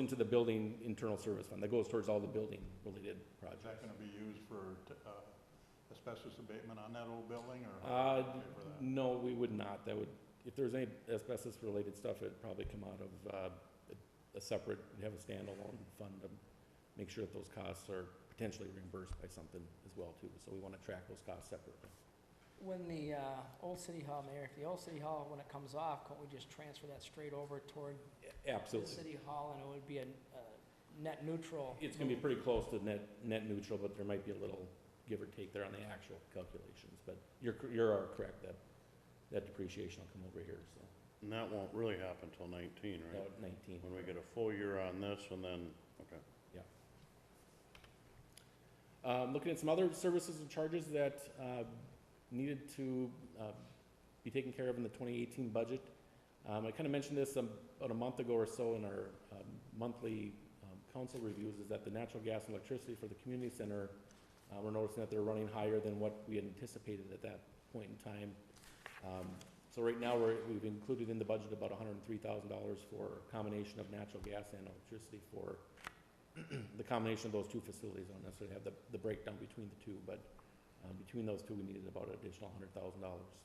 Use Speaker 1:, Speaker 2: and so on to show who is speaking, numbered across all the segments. Speaker 1: into the building internal service fund. That goes towards all the building-related
Speaker 2: Is
Speaker 1: projects.
Speaker 2: that gonna be used for uh, asbestos abatement on that old building, or?
Speaker 1: Uh,
Speaker 2: pay for that?
Speaker 1: no, we would not. That would, if there's any asbestos-related stuff, it'd probably come out of, uh, a- a separate, we'd have a standalone fund to make sure that those costs are potentially reimbursed by something as well, too. So we want to track those costs separately.
Speaker 3: When the, uh, old city hall, Mayor, the old city hall, when it comes off, can't we just transfer that straight over toward
Speaker 1: A-
Speaker 3: the
Speaker 1: Absolutely.
Speaker 3: city hall and it would be a, a net neutral?
Speaker 1: It's gonna be pretty close to net, net neutral, but there might be a little give or take there on the actual calculations. But you're, cor- you are correct that, that depreciation will come over here, so,
Speaker 4: And that won't really happen till nineteen, right?
Speaker 1: about nineteen.
Speaker 4: When we get a full year on this and then, okay.
Speaker 1: Um, looking at some other services and charges that, uh, needed to, uh, be taken care of in the twenty eighteen budget. Um, I kinda mentioned this um, about a month ago or so in our, um, monthly, um, council reviews, is that the natural gas and electricity for the community center, uh, we're noticing that they're running higher than what we had anticipated at that point in time. Um, so right now, we're, we've included in the budget about hundred and three thousand dollars for a combination of natural gas and electricity for, the combination of those two facilities, I don't necessarily have the, the breakdown between the two, but, uh, between those two, we needed about an additional hundred thousand dollars.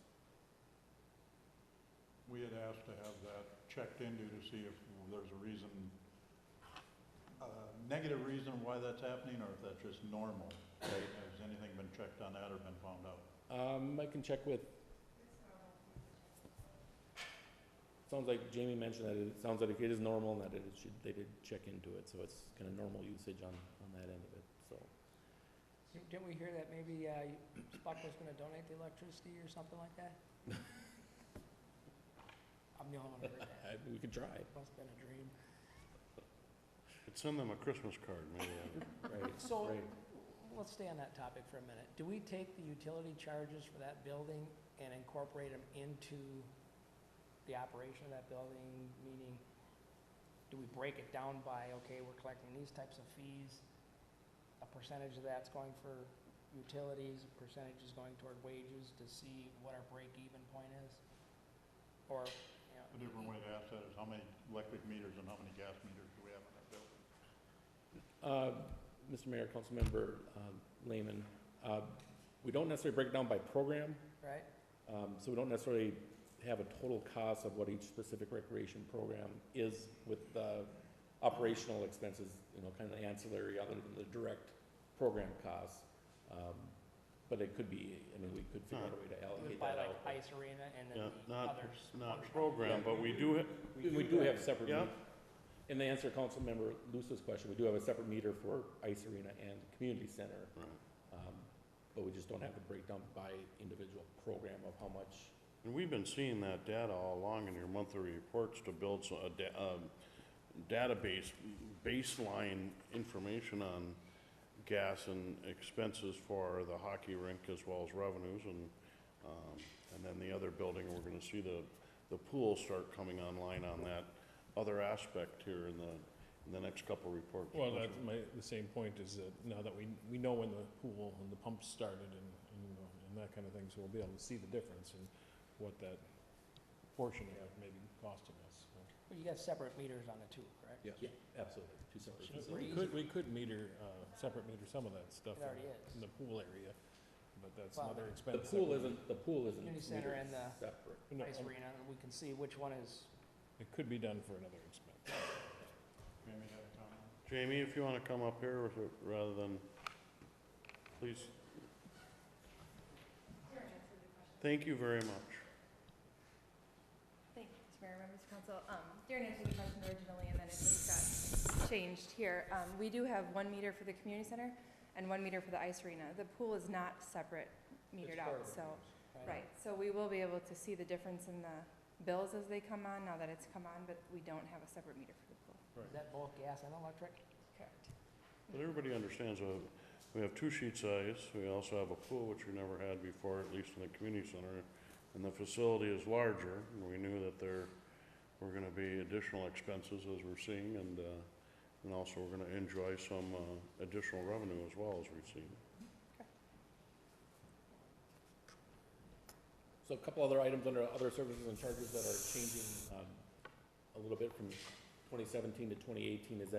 Speaker 2: We had asked to have that checked into to see if there's a reason, a negative reason why that's happening, or if that's just normal. Has anything been checked on that or been found out?
Speaker 1: Um, I can check with. Sounds like Jamie mentioned that it, sounds like it is normal and that it should, they did check into it, so it's kinda normal usage on, on that end of it, so.
Speaker 3: Didn't we hear that maybe, uh, Spock was gonna donate the electricity or something like that? I'm the only one who heard that.
Speaker 1: I, we could try,
Speaker 3: Must've been a dream.
Speaker 4: Could send them a Christmas card, maybe. uh,
Speaker 1: right,
Speaker 3: So-
Speaker 1: right.
Speaker 3: Let's stay on that topic for a minute. Do we take the utility charges for that building and incorporate them into the operation of that building? Meaning, do we break it down by, okay, we're collecting these types of fees, a percentage of that's going for utilities, a percentage is going toward wages to see what our break-even point is? Or, you know.
Speaker 2: A different way to ask that is how many electric meters and how many gas meters do we have in that building?
Speaker 1: Uh, Mr. Mayor, Councilmember, um, Lehman, uh, we don't necessarily break it down by program,
Speaker 3: Right?
Speaker 1: Um, so we don't necessarily have a total cost of what each specific recreation program is with the operational expenses, you know, kind of ancillary other than the direct program costs. Um, but it could be, I mean, we could figure out a way to allocate
Speaker 3: By
Speaker 1: that
Speaker 3: like
Speaker 1: out.
Speaker 3: ice arena and
Speaker 4: Yeah,
Speaker 3: then the
Speaker 4: not-
Speaker 3: others.
Speaker 4: Not
Speaker 3: function.
Speaker 4: program, but we do, ha-
Speaker 1: We do have separate,
Speaker 4: Yeah.
Speaker 1: meter- and to answer Councilmember Luce's question, we do have a separate meter for ice arena and community center.
Speaker 4: Right.
Speaker 1: Um, but we just don't have the breakdown by individual program of how much
Speaker 4: and we've been seeing that data all along in your monthly reports to build so- a da- um, database, baseline information on gas and expenses for the hockey rink as well as revenues and, um, and then the other building, we're gonna see the, the pool start coming online on that other aspect here in the, in the next couple reports.
Speaker 5: Well, that's my, the same point is that now that we, we know when the pool and the pump started and, and, you know, and that kind of thing, so we'll be able to see the difference and what that portion of it may be costing us. so.
Speaker 3: But you got separate meters on the two, correct?
Speaker 1: Yeah, absolutely, two separate.
Speaker 3: Should
Speaker 5: We
Speaker 1: facilities.
Speaker 5: could, we could meter, uh, separate meter some of that stuff
Speaker 3: It
Speaker 5: in
Speaker 3: already is.
Speaker 5: the- in the pool area, but that's
Speaker 3: Well,
Speaker 5: another
Speaker 1: The
Speaker 5: expense. that
Speaker 1: pool
Speaker 5: we-
Speaker 1: isn't, the pool isn't.
Speaker 3: Community center
Speaker 1: metered
Speaker 3: and the-
Speaker 1: Separate.
Speaker 5: no,
Speaker 3: ice
Speaker 5: um,
Speaker 3: arena, and we can see which one is,
Speaker 5: It could be done for another expense.
Speaker 2: Jamie had a comment?
Speaker 4: Jamie, if you wanna come up here with it, rather than, please. Thank you very much.
Speaker 6: Thank you, Mr. Mayor, members of council. Um, Darren answered the question originally, and then it just got changed here. Um, we do have one meter for the community center and one meter for the ice arena. The pool is not separate metered out, so,
Speaker 3: right?
Speaker 6: right. So we will be able to see the difference in the bills as they come on, now that it's come on, but we don't have a separate meter for the pool.
Speaker 3: Is that both gas and electric?
Speaker 6: Correct.
Speaker 4: But everybody understands, uh, we have two sheet size, we also have a pool, which we never had before, at least in the community center, and the facility is larger, and we knew that there were gonna be additional expenses as we're seeing, and, uh, and also we're gonna enjoy some, uh, additional revenue as well as we've seen.
Speaker 1: So a couple other items under other services and charges that are changing, um, a little bit from 2018 twenty seventeen to twenty eighteen is